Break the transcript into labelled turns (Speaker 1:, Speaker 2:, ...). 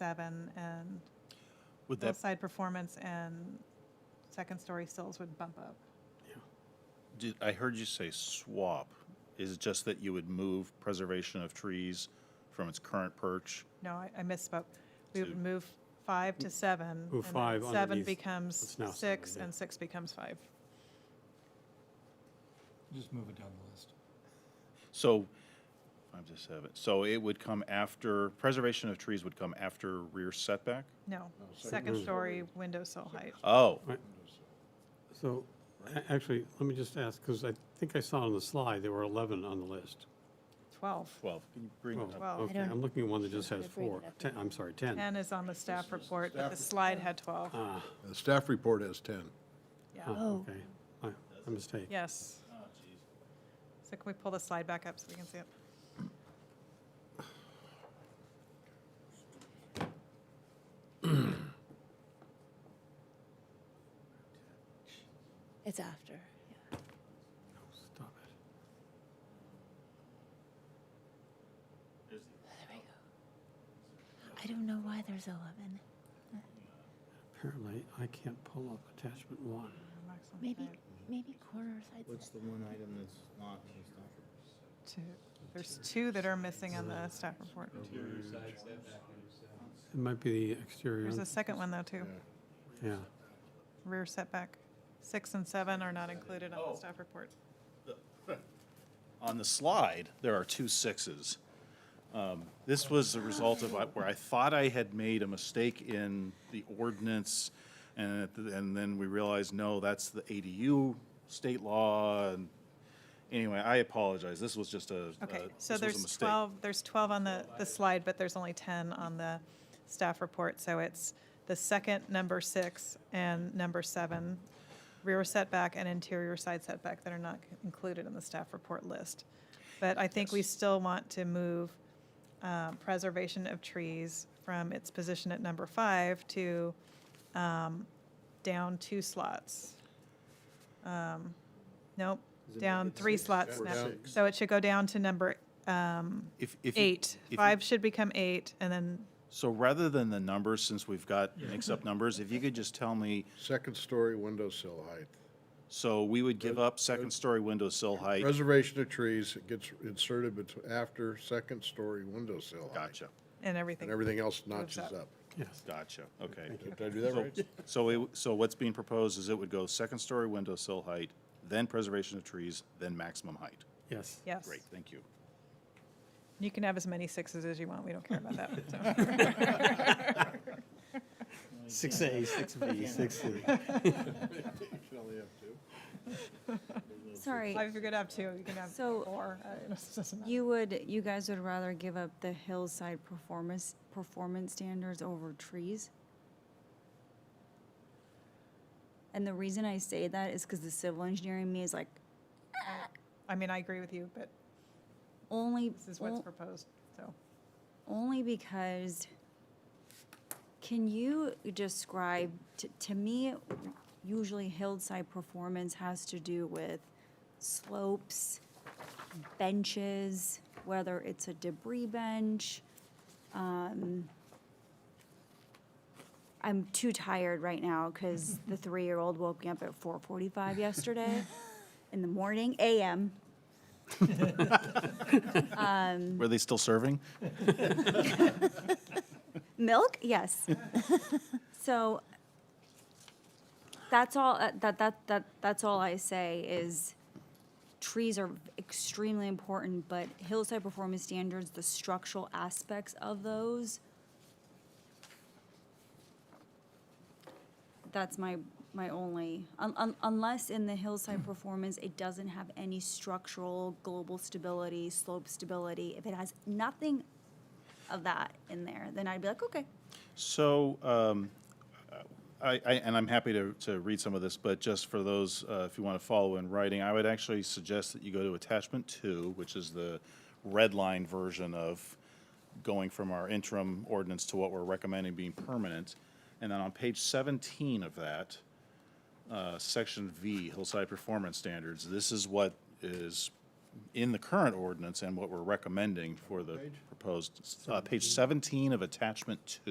Speaker 1: seven and
Speaker 2: Would that,
Speaker 1: hillside performance and second story sills would bump up.
Speaker 2: did, I heard you say swap. Is it just that you would move preservation of trees from its current perch?
Speaker 1: No, I- I misspoke. We
Speaker 2: To-
Speaker 1: would move five to seven.
Speaker 3: Move
Speaker 1: and then
Speaker 3: five
Speaker 1: Seven
Speaker 3: underneath
Speaker 1: becomes
Speaker 3: what's now seven,
Speaker 1: six
Speaker 3: yeah.
Speaker 1: and six becomes five.
Speaker 4: Just move it down the list.
Speaker 2: So, five to seven, so it would come after, preservation of trees would come after rear setback?
Speaker 1: No,
Speaker 3: Oh,
Speaker 4: second
Speaker 1: second
Speaker 3: story.
Speaker 1: story window sill height.
Speaker 2: Oh,
Speaker 3: So, a- actually, let me just ask, because I think I saw on the slide, there were 11 on the list. Oh,
Speaker 1: 12.
Speaker 2: 12. Can you bring it up?
Speaker 1: Well,
Speaker 3: Okay, I'm looking at one that just has
Speaker 5: Should I bring it
Speaker 3: four.
Speaker 5: up?
Speaker 3: Ten, I'm sorry, 10.
Speaker 1: 10 is on the staff report, but the slide had 12.
Speaker 3: Ah,
Speaker 6: The staff report has 10.
Speaker 1: Yeah,
Speaker 3: oh, okay. My my mistake.
Speaker 1: yes. So can we pull the slide back up so we can see it?
Speaker 5: It's after. yeah.
Speaker 3: No, Stop it.
Speaker 5: There we go. I don't know why there's Uh, 11.
Speaker 3: Apparently, I can't pull up attachment one.
Speaker 1: Mark's on
Speaker 5: Maybe,
Speaker 1: five,
Speaker 5: maybe corner or side.
Speaker 7: What's
Speaker 5: set.
Speaker 7: the one item that's not in the staff
Speaker 1: two. There's two that are missing on the staff report.
Speaker 3: It might be the exterior.
Speaker 1: There's a second one though, too.
Speaker 3: Yeah.
Speaker 1: Rear setback. Six and seven are not included
Speaker 2: Oh.
Speaker 1: on the staff report.
Speaker 2: On the slide, there are two sixes. Um, This was a result of I- where I thought I had made a mistake in the ordinance, and, at the- and then we realized, no, that's the ADU state law, and anyway, I apologize, this was just a, uh,
Speaker 1: Okay,
Speaker 2: this
Speaker 1: so
Speaker 2: was a
Speaker 1: there's
Speaker 2: mistake.
Speaker 1: 12, there's 12 on the, the slide, but there's only 10 on the staff report. So it's the second, number six, and number seven, rear setback and interior side setback that are not included in the staff report list. But I think we still want to move uh, preservation of trees from its position at number five to um, down two slots. Um, Nope,
Speaker 7: Does it make
Speaker 1: down
Speaker 7: it
Speaker 1: three
Speaker 7: six?
Speaker 1: slots
Speaker 6: Or
Speaker 1: now.
Speaker 6: six.
Speaker 1: So it should go down to number um,
Speaker 2: If- if you-
Speaker 1: eight.
Speaker 2: if you-
Speaker 1: Five should become eight, and then,
Speaker 2: So rather than the numbers, since we've got mixed-up numbers, if you could just tell me,
Speaker 6: Second story window sill height.
Speaker 2: so we would give up second-story window sill height,
Speaker 6: Preservation of trees it gets inserted betw- after second story window sill height.
Speaker 2: gotcha,
Speaker 1: and
Speaker 6: And
Speaker 1: everything.
Speaker 6: everything else
Speaker 1: Moves
Speaker 6: notches
Speaker 1: up.
Speaker 6: up.
Speaker 3: Yes.
Speaker 2: gotcha, okay.
Speaker 6: Did I do that
Speaker 2: So-
Speaker 6: right?
Speaker 2: So, it w- so what's being proposed is it would go second-story window sill height, then preservation of trees, then maximum height.
Speaker 3: Yes.
Speaker 1: Yes.
Speaker 2: Great, thank you.
Speaker 1: You can have as many sixes as you want. We don't care about that. so.
Speaker 3: Six A, six B, six C.
Speaker 8: Sorry,
Speaker 1: Well, If you're going to have two, you can have
Speaker 8: So,
Speaker 1: four. uh, it doesn't matter.
Speaker 8: you would, you guys would rather give up the hillside performance, performance standards over trees? And the reason I say that is because the civil engineering in me is like,
Speaker 1: I mean, I agree with you, but
Speaker 8: only,
Speaker 1: this is what's
Speaker 8: on-
Speaker 1: proposed, so.
Speaker 8: only because, can you describe, to, to me, usually hillside performance has to do with slopes, benches, whether it's a debris bench. um, I'm too tired right now because the three-year-old woke me up at four forty-five yesterday in the morning, AM.
Speaker 2: Were they still serving?
Speaker 8: Milk? Yes. so that's all uh, that that that that's all I say is trees are extremely important, but hillside performance standards, the structural aspects of those that's my my only un, un, unless in the hillside performance it doesn't have any structural global stability, slope stability. If it has nothing of that in there, then I'd be like, okay.
Speaker 2: So, um, I, I, and I'm happy to, to read some of this, but just for those, uh, if you want to follow in writing, I would actually suggest that you go to attachment two, which is the red line version of going from our interim ordinance to what we're recommending being permanent. And then on page seventeen of that, uh, section V, hillside performance standards, this is what is in the current ordinance and what we're recommending for the proposed, uh, page seventeen of attachment two.